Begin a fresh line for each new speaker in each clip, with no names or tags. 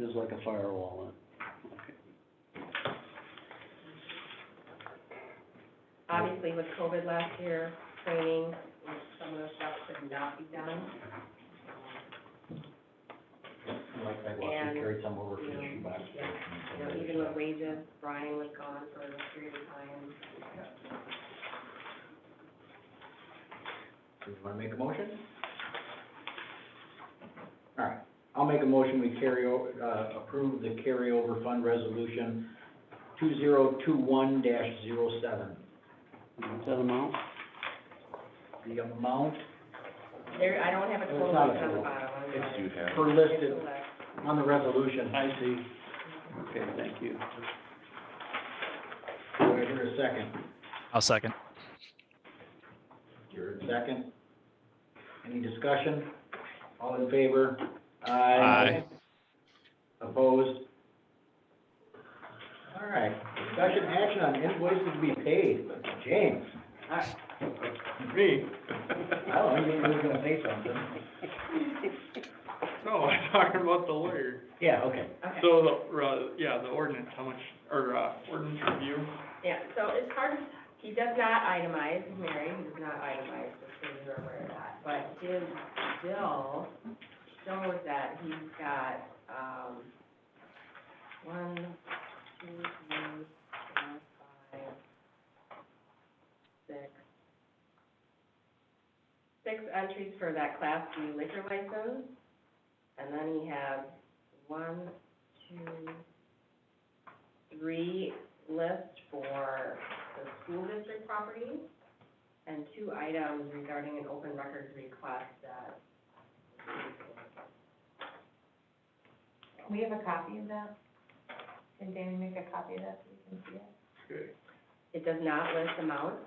there's like a firewall
Obviously with COVID last year, training, some of the stuff could not be done.
Like that, we carried some over from the
And,
shoebox.
You know, even with wages, Brian was gone for a period of time.
Do you wanna make a motion? All right, I'll make a motion, we carry o uh, approve the carryover fund resolution two zero two one dash zero seven.
on it. Is that amount?
The amount
There, I don't have a total
It's not a
on the
total.
bottom. I'm
It's-
sorry.
per
It's
listed
a list.
on the resolution.
I see. Okay, thank you.
Do I hear a second?
I'll second.
You're in second. Any discussion? All in favor?
Aye.
Opposed? All right, discussion action on invoices to be paid, James.
Me?
I don't think you were gonna say something.
No, I'm talking about the lawyer.
Yeah, okay.
Okay.
So the, uh, yeah, the ordinance, how much, or, uh, ordinance review,
Yeah, so it's hard, he does not itemize, Mary, he does not itemize, just so you're aware of that. But his bill shows that he's got, um, one, two, three, four, five, six, six entries for that Class B liquor license. And then he has one, two, three list for the school district property and two items regarding an open records request that.
We have a copy of that. Can Danny make a copy of that so we can see it?
okay.
It does not list amounts.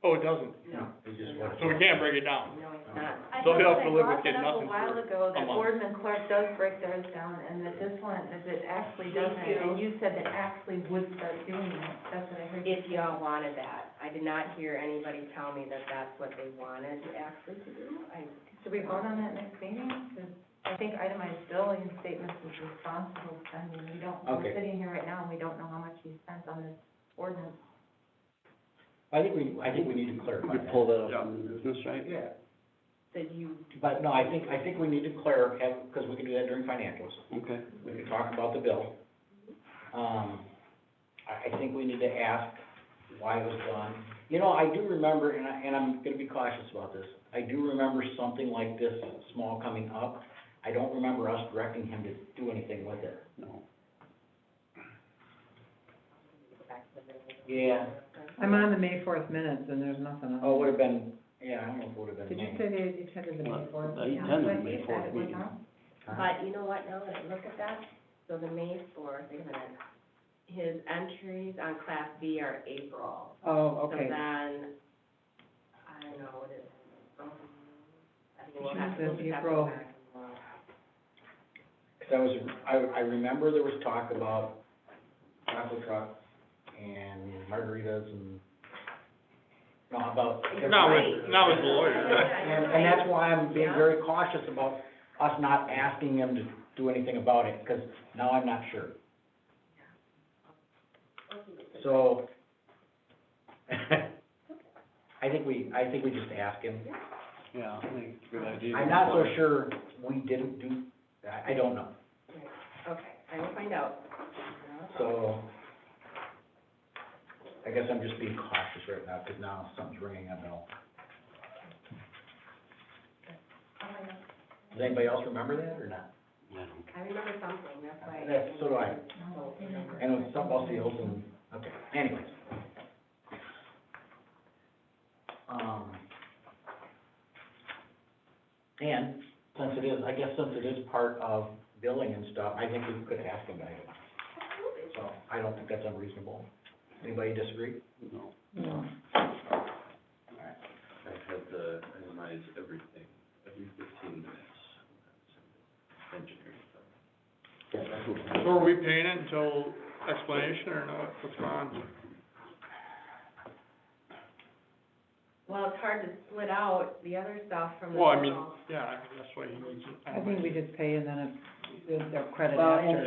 Oh, it doesn't,
No, it's just what.
so we can't break it down.
No, it's not.
I
So
know
we have
that
to live with
brought that
getting
up a
nothing
while
for
ago,
a
that
month.
Boardman Clark does break theirs down, and that this one, is it
Me
actually doesn't.
too.
And you said that actually would start doing that, that's what I heard. you
If
say.
y'all wanted that. I did not hear anybody tell me that that's what they wanted actually to do. I,
Should we vote on that next meeting? 'Cause I think itemized billing statements is responsible spending, we don't,
Okay.
we're sitting here right now, and we don't know how much he spent on this ordinance.
I think we, I think we need to
We
clarify
could
that.
pull that up in the business, right?
Yeah,
did you,
but no, I think, I think we need to clarify, because we can do that during financials.
Okay.
we can talk about the bill. Um, I, I think we need to ask why it was done. You know, I do remember, and I, and I'm gonna be cautious about this, I do remember something like this small coming up. I don't remember us directing him to do anything with it.
No.
go back to the business?
Yeah.
I'm on the May fourth minutes and there's nothing on.
Oh, it would've been, yeah, I don't know if it would've been.
Did you
me.
say they attended the May fourth?
I attended the May fourth meeting.
Huh?
But you know what, now that I look at that, so the May fourth, wait a minute, his entries on class B are April.
Oh,
So
okay.
then, I don't know, what it, um, I think we'll have to,
Jesus,
we'll just have to
April.
go back and look.
'Cause I was, I, I remember there was talk about taco truck and margaritas and, no, about.
Not with, not with the lawyer,
And, and that's why I'm being very cautious about us not asking them to do anything about it, because now I'm not sure. So, I think we, I think we just ask him.
Yeah, I think it's a good idea.
I'm not so sure we didn't do, I, I don't know,
Okay, I will find out.
so. I guess I'm just being cautious right now, because now something's ringing a bell.
Oh
Does anybody else remember that or not?
I don't
I remember something, that's why.
That's- so do I.
Oh, remember.
And it's something else the open, okay, anyways. Um, and since it is, I guess since it is part of billing and stuff, I think we could ask them about it. So I don't think that's unreasonable. Anybody disagree?
know.
No.
I had the itemize everything, every fifteen minutes. Engineering stuff.
Yes.
so are we paying it until explanation or not, what's going on?
Well, it's hard to split out the other stuff from the.
Well, I mean,
general.
yeah, that's why he needs it.
I think we just pay and then it, they're
Well, and-
after.